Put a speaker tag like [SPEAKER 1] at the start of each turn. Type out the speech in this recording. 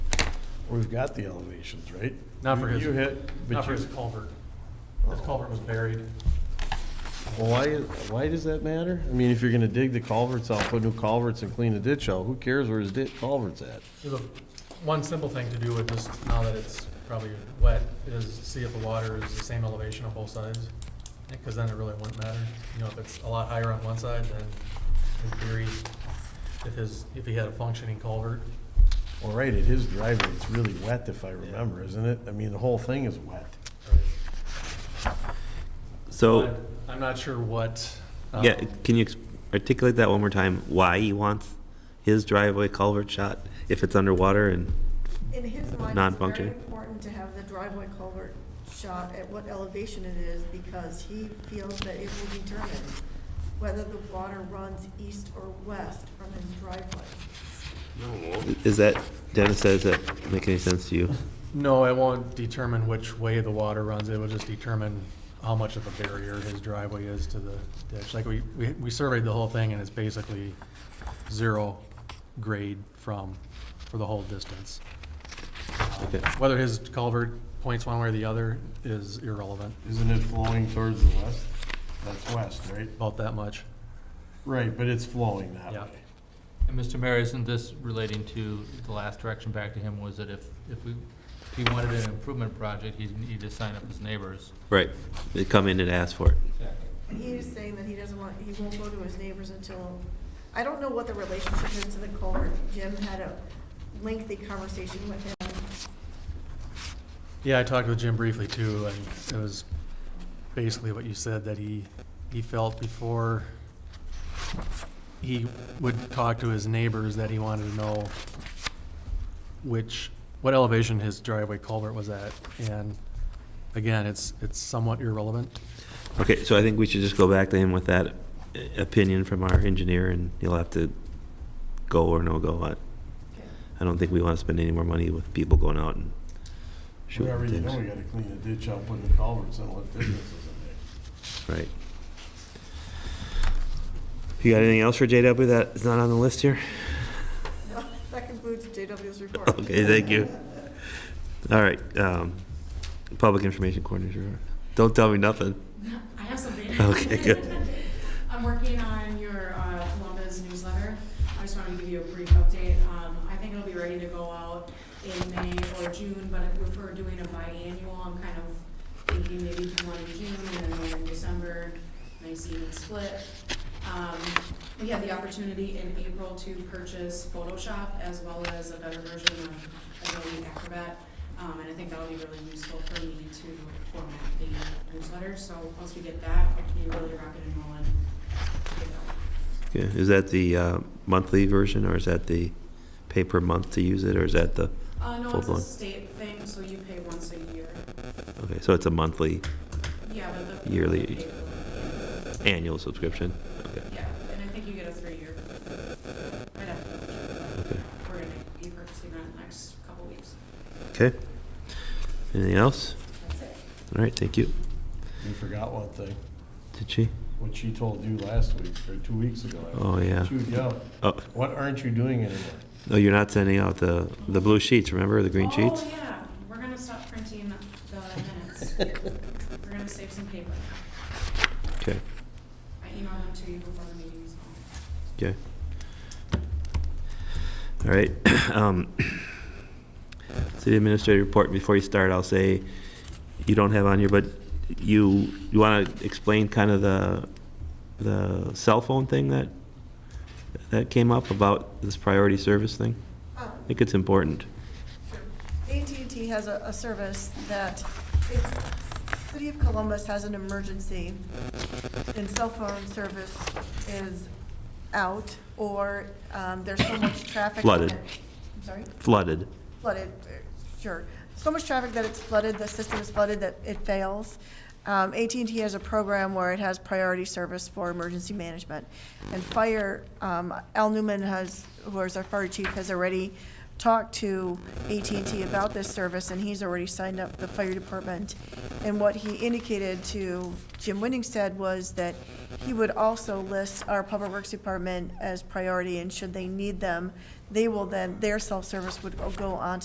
[SPEAKER 1] We've got the elevations, right?
[SPEAKER 2] Not for
[SPEAKER 1] You-
[SPEAKER 2] his-
[SPEAKER 1] You hit, but
[SPEAKER 2] Not for
[SPEAKER 1] you, Oh.
[SPEAKER 2] his culvert. His culvert was buried.
[SPEAKER 3] Well, why, why does that matter? I mean, if you're gonna dig the culverts out, put new culverts and clean the ditch out, who cares where his ditch culvert's at?
[SPEAKER 2] There's a, one simple thing to do with this, now that it's probably wet, is see if the water is the same elevation on both sides. Because then it really wouldn't matter. You know, if it's a lot higher on one side, then in theory, if his, if he had a functioning culvert,
[SPEAKER 3] Well, right, it is driveway, it's really wet if I remember, isn't it? I mean, the whole thing is wet.
[SPEAKER 4] So,
[SPEAKER 2] But I'm not sure what. um,
[SPEAKER 4] yeah, can you ex- articulate that one more time? Why he wants his driveway culvert shot if it's underwater and,
[SPEAKER 5] In his mind, it's very
[SPEAKER 4] Non-functioning.
[SPEAKER 5] important to have the driveway culvert shot at what elevation it is because he feels that it will determine whether the water runs east or west from his driveway.
[SPEAKER 4] is that, Dennis says that make any sense to you?
[SPEAKER 2] No, it won't determine which way the water runs. It will just determine how much of a barrier his driveway is to the ditch. Like, we, we we surveyed the whole thing, and it's basically zero grade from, for the whole distance.
[SPEAKER 4] Okay.
[SPEAKER 2] Whether his culvert points one way or the other is irrelevant,
[SPEAKER 3] Isn't it flowing towards the west? That's west, right?
[SPEAKER 2] about that much.
[SPEAKER 3] Right, but it's flowing that
[SPEAKER 2] Yeah.
[SPEAKER 3] way.
[SPEAKER 6] And Mr. Mayor, isn't this relating to the last direction back to him was that if, if we, if he wanted an improvement project, he'd need to sign up his neighbors.
[SPEAKER 4] Right, they come in and ask for it.
[SPEAKER 6] Exactly.
[SPEAKER 5] And he is saying that he doesn't want, he won't go to his neighbors until, I don't know what the relationship is to the culvert. Jim had a lengthy conversation with him.
[SPEAKER 2] Yeah, I talked with Jim briefly too, and it was basically what you said, that he, he felt before he would talk to his neighbors that he wanted to know which, what elevation his driveway culvert was at. And again, it's, it's somewhat irrelevant.
[SPEAKER 4] Okay, so I think we should just go back to him with that uh, opinion from our engineer and he'll have to go or no go. I, I don't think we want to spend any more money with people going out and
[SPEAKER 3] Whatever
[SPEAKER 4] shooting
[SPEAKER 3] you do, we
[SPEAKER 4] things.
[SPEAKER 3] gotta clean the ditch out, put the culverts in, let businesses in there.
[SPEAKER 4] Right. You got anything else for JW that is not on the list here?
[SPEAKER 5] That concludes JW's report.
[SPEAKER 4] Okay, thank you. All right, um, Public Information Coordinator, don't tell me nothing.
[SPEAKER 7] I have something.
[SPEAKER 4] Okay, good.
[SPEAKER 7] I'm working on your uh, Columbus newsletter. I just wanted to give you a brief update. Um, I think it'll be ready to go out in May or June, but if we're doing a biannual, I'm kind of thinking maybe do one in June and then one in December, nice even split. Um, We had the opportunity in April to purchase Photoshop as well as a better version of Adobe Acrobat. Um, and I think that'll be really useful for me to format the newsletter, so once we get that, I can be really rocking and rolling. Get that.
[SPEAKER 4] Yeah, Is that the uh, monthly version, or is that the pay per month to use it, or is that the,
[SPEAKER 7] Uh, no,
[SPEAKER 4] Full
[SPEAKER 7] it's
[SPEAKER 4] blown.
[SPEAKER 7] a state thing, so you pay once a year.
[SPEAKER 4] okay, so it's a monthly
[SPEAKER 7] Yeah, but the.
[SPEAKER 4] Yearly.
[SPEAKER 7] the paper,
[SPEAKER 4] annual subscription? Okay,
[SPEAKER 7] Yeah, and I think you get a three-year. I'd have to double check,
[SPEAKER 4] okay.
[SPEAKER 7] but We're gonna be purchasing that in the next couple weeks.
[SPEAKER 4] Okay. Anything else?
[SPEAKER 7] That's it.
[SPEAKER 4] All right, thank you.
[SPEAKER 3] You forgot one thing,
[SPEAKER 4] Did she?
[SPEAKER 3] what she told you last week, or two weeks ago. I
[SPEAKER 4] Oh, yeah.
[SPEAKER 3] Chewed you up.
[SPEAKER 4] Oh,
[SPEAKER 3] What aren't you doing anymore?
[SPEAKER 4] no, you're not sending out the, the blue sheets, remember, the green sheets?
[SPEAKER 7] Oh, yeah, we're gonna stop printing the minutes. We're gonna save some paper.
[SPEAKER 4] Okay,
[SPEAKER 7] I emailed them to you before the meeting, so.
[SPEAKER 4] okay. All right. um, City administrative report, before you start, I'll say, you don't have on here, but you, you want to explain kind of the, the cell phone thing that, that came up about this priority service thing?
[SPEAKER 5] Um,
[SPEAKER 4] I think it's important.
[SPEAKER 5] AT&T has a, a service that if City of Columbus has an emergency and cell phone service is out or um, there's so much traffic.
[SPEAKER 4] Flooded.
[SPEAKER 5] I'm sorry?
[SPEAKER 4] Flooded.
[SPEAKER 5] flooded, uh, sure. So much traffic that it's flooded, the system is flooded, that it fails. Um, AT&T has a program where it has priority service for emergency management. And fire, um, Al Newman has, who is our fire chief, has already talked to AT&T about this service, and he's already signed up the fire department. And what he indicated to Jim Winningstead was that he would also list our Public Works Department as priority, and should they need them, they will then, their self-service would go on